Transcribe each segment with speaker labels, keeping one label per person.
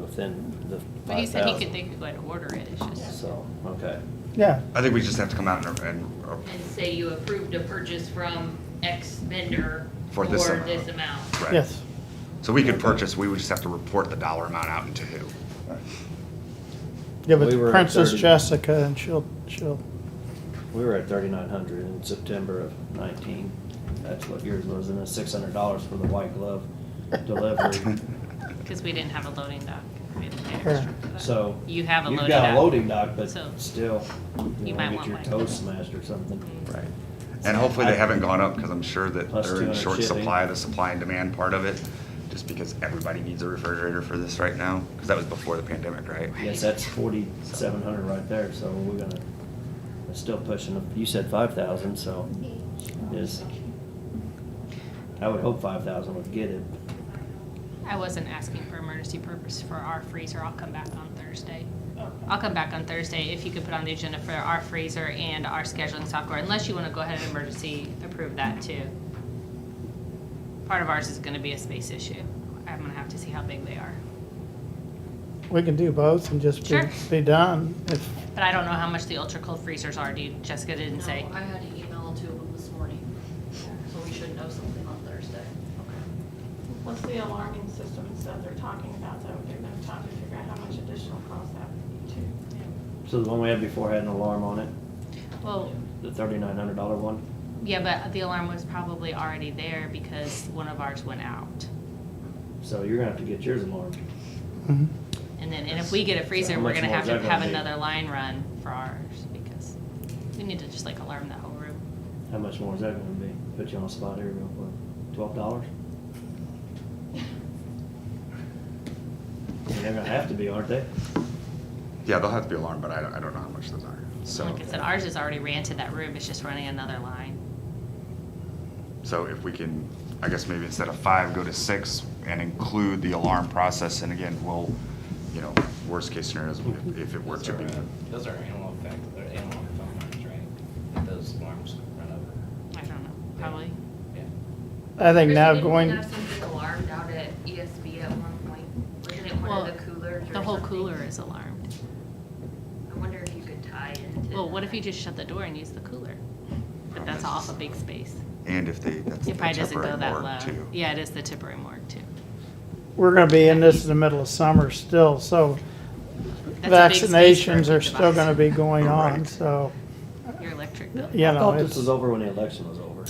Speaker 1: within the
Speaker 2: But he
Speaker 1: five
Speaker 2: said he could, they
Speaker 1: thousand.
Speaker 2: could go ahead and order it, it's just,
Speaker 1: So, okay.
Speaker 3: Yeah,
Speaker 4: I think we just have to come out and, and, uh,
Speaker 5: and say you approved a purchase from X vendor
Speaker 4: For
Speaker 5: for
Speaker 4: this amount.
Speaker 5: this amount.
Speaker 4: right.
Speaker 3: yes.
Speaker 4: So we could purchase, we would just have to report the dollar amount out into who.
Speaker 3: Give it
Speaker 1: We were
Speaker 3: to
Speaker 1: at
Speaker 3: Princess
Speaker 1: 30.
Speaker 3: Jessica and she'll, she'll,
Speaker 1: We were at thirty-nine hundred in September of nineteen. That's what yours was, and then six hundred dollars for the white glove delivery.
Speaker 2: because we didn't have a loading dock. We didn't pay
Speaker 3: Sure.
Speaker 2: extra for that.
Speaker 1: So.
Speaker 2: You have a
Speaker 1: You've
Speaker 2: loading
Speaker 1: got a
Speaker 2: dock.
Speaker 1: loading dock, but
Speaker 2: So,
Speaker 1: still, you
Speaker 2: you
Speaker 1: know,
Speaker 2: might
Speaker 1: get
Speaker 2: want
Speaker 1: your
Speaker 2: one. Mm.
Speaker 1: toes smashed or something.
Speaker 4: Right. And hopefully they haven't gone up, because I'm sure that
Speaker 1: Plus
Speaker 4: they're in
Speaker 1: 200
Speaker 4: short
Speaker 1: shipping.
Speaker 4: supply, the supply and demand part of it, just because everybody needs a refrigerator for this right now, because that was before the pandemic, right?
Speaker 1: Yes, that's forty-seven hundred right there, so we're gonna, we're still pushing, them. you said five thousand, so is, I would hope five thousand would get it.
Speaker 2: I wasn't asking for emergency purpose for our freezer, I'll come back on Thursday. I'll come back on Thursday if you could put on the agenda for our freezer and our scheduling software, unless you want to go ahead and emergency approve that too. Part of ours is going to be a space issue. I'm going to have to see how big they are.
Speaker 3: we can do both and just be,
Speaker 2: Sure.
Speaker 3: be done. If,
Speaker 2: But I don't know how much the ultra cold freezers are, do you, Jessica didn't say?
Speaker 6: No, I had an email to them this morning, so we should know something on Thursday.
Speaker 7: What's the alarming system and stuff they're talking about, though, they're gonna talk to figure out how much additional cost that would be too.
Speaker 1: So the one we had before had an alarm on it,
Speaker 2: Well,
Speaker 1: the thirty-nine hundred dollar one?
Speaker 2: yeah, but the alarm was probably already there because one of ours went out.
Speaker 1: So you're gonna have to get yours alarmed.
Speaker 2: Mm-hmm.
Speaker 3: mhm.
Speaker 2: And then, and if we get a
Speaker 1: So
Speaker 2: freezer,
Speaker 1: how
Speaker 2: we're
Speaker 1: much
Speaker 2: gonna
Speaker 1: more
Speaker 2: have
Speaker 1: is
Speaker 2: to
Speaker 1: that gonna
Speaker 2: have
Speaker 1: be?
Speaker 2: another line run for ours, because we need to just like alarm that whole room.
Speaker 1: How much more is that gonna be? Put you on the spot here real quick. Twelve dollars? They're gonna have to be, aren't they?
Speaker 4: Yeah, they'll have to be alarmed, but I don't, I don't know how much those are, so.
Speaker 2: Like I said, ours is already ran to that room, it's just running another line.
Speaker 4: So if we can, I guess maybe instead of five, go to six and include the alarm process. And again, we'll, you know, worst case scenario is if- if it were
Speaker 8: Those
Speaker 4: to
Speaker 8: are,
Speaker 4: be.
Speaker 8: uh, Those are analog fact, they're analog phone lines, right? That those alarms run over.
Speaker 2: I don't know, probably.
Speaker 8: Yeah.
Speaker 3: I think now
Speaker 6: Kristen,
Speaker 3: going,
Speaker 6: Didn't we have something alarmed out at ESB at one point? Wasn't it one
Speaker 2: Well,
Speaker 6: of the coolers or
Speaker 2: The whole
Speaker 6: something?
Speaker 2: cooler is alarmed.
Speaker 6: I wonder if you could tie into.
Speaker 2: Well, what if
Speaker 6: that.
Speaker 2: you just shut the door and use the cooler? But that's off a big space.
Speaker 4: And if they, that's the
Speaker 2: It probably doesn't go
Speaker 4: temporary
Speaker 2: that
Speaker 4: board
Speaker 2: low.
Speaker 4: too.
Speaker 2: Yeah, it is the Tipperary morgue too.
Speaker 3: we're gonna be in this in the middle of summer still, so
Speaker 2: That's a big space for a
Speaker 3: vaccinations are
Speaker 2: big
Speaker 3: still
Speaker 2: device.
Speaker 3: gonna be going on,
Speaker 4: Right.
Speaker 3: so,
Speaker 2: Your electric bill.
Speaker 3: you
Speaker 1: I
Speaker 3: know,
Speaker 1: thought this
Speaker 3: it's,
Speaker 1: was over when the election was over.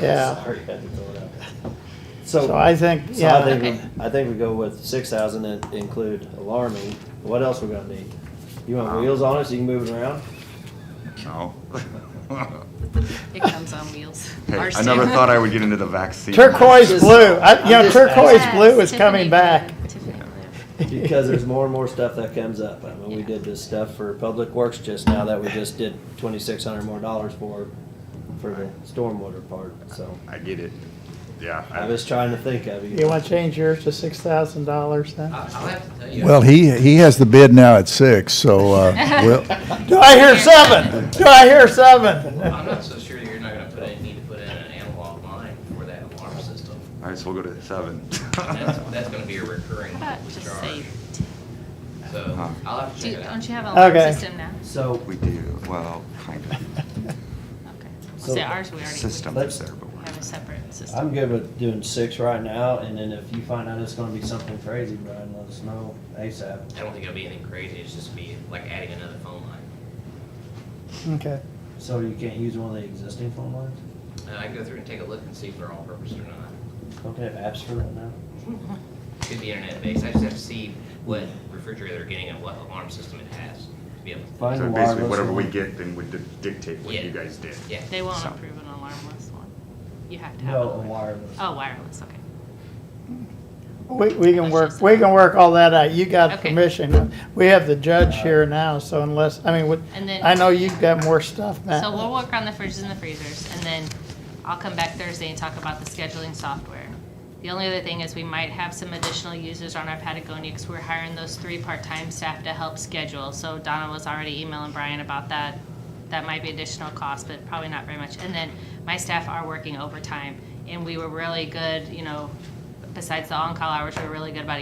Speaker 3: yeah.
Speaker 1: Sorry, I had to throw it out.
Speaker 3: So
Speaker 1: So,
Speaker 3: I think,
Speaker 1: so I
Speaker 3: yeah,
Speaker 1: think, I think we go with six thousand and include alarming. What else we gonna need? You want wheels on it so you can move it around?
Speaker 4: No.
Speaker 2: It comes on wheels.
Speaker 4: Hey,
Speaker 2: Ours
Speaker 4: I never
Speaker 2: too.
Speaker 4: thought I would get into the vaccine.
Speaker 3: turquoise blue, I, you
Speaker 1: I'm
Speaker 3: know,
Speaker 1: just
Speaker 3: turquoise
Speaker 2: Yes,
Speaker 3: blue is
Speaker 2: Tiffany
Speaker 3: coming
Speaker 2: blue,
Speaker 3: back.
Speaker 2: Tiffany blue.
Speaker 1: Because there's more and more stuff that comes up. I mean, we
Speaker 2: Yeah.
Speaker 1: did this stuff for Public Works just now that we just did twenty-six hundred more dollars for, for the stormwater part, so.
Speaker 4: I get it. Yeah.
Speaker 1: I was trying to think of you.
Speaker 3: You wanna change yours to six thousand dollars then?
Speaker 8: I- I'll have to tell you.
Speaker 9: Well, he, he has the bid now at six, so, uh, we'll,
Speaker 3: Do I hear seven? Do I hear seven?
Speaker 8: I'm not so sure you're not gonna put in, need to put in an analog line for that alarm system.
Speaker 4: All right, so we'll go to seven.
Speaker 8: That's, that's gonna be a recurring
Speaker 2: How about just say,
Speaker 8: charge. So I'll have to check
Speaker 2: do,
Speaker 8: it out.
Speaker 2: don't you have an alarm
Speaker 3: Okay.
Speaker 2: system now?
Speaker 1: So,
Speaker 4: We do, well, kind of.
Speaker 2: Okay.
Speaker 1: So-
Speaker 2: Well, see, ours, we already. we
Speaker 4: System is there, but we're.
Speaker 2: Have a separate system.
Speaker 1: I'm good with doing six right now, and then if you find out it's gonna be something crazy, Brian, let us know ASAP.
Speaker 8: I don't think it'll be anything crazy, it's just be like adding another phone line.
Speaker 3: Okay,
Speaker 1: So you can't use one of the existing phone lines?
Speaker 8: And I can go through and take a look and see if they're all purpose or not.
Speaker 1: Don't they have apps for that now?
Speaker 8: Could be internet based, I just have to see what refrigerator they're getting and what alarm system it has to be able to.
Speaker 1: Find
Speaker 4: So
Speaker 1: the
Speaker 4: basically,
Speaker 1: wireless
Speaker 4: whatever we
Speaker 1: one.
Speaker 4: get, then would dictate what you guys did.
Speaker 8: Yeah.
Speaker 2: They won't
Speaker 4: So-
Speaker 2: approve an alarmless one. You have to have.
Speaker 1: No,
Speaker 2: it.
Speaker 1: a wireless.
Speaker 2: Oh, wireless, okay.
Speaker 3: we, we can work, we can work all that out, you got
Speaker 2: Okay.
Speaker 3: permission. We have the judge here now, so unless, I mean, what-
Speaker 2: And then-
Speaker 3: I know you've got more stuff, Matt.
Speaker 2: So we'll work on the fridges and the freezers, and then I'll come back Thursday and talk about the scheduling software. The only other thing is we might have some additional users on our Patagonia, because we're hiring those three part-time staff to help schedule. So Donna was already emailing Brian about that. That might be additional cost, but probably not very much. And then my staff are working overtime, and we were really good, you know, besides the on-call hours, we were really good about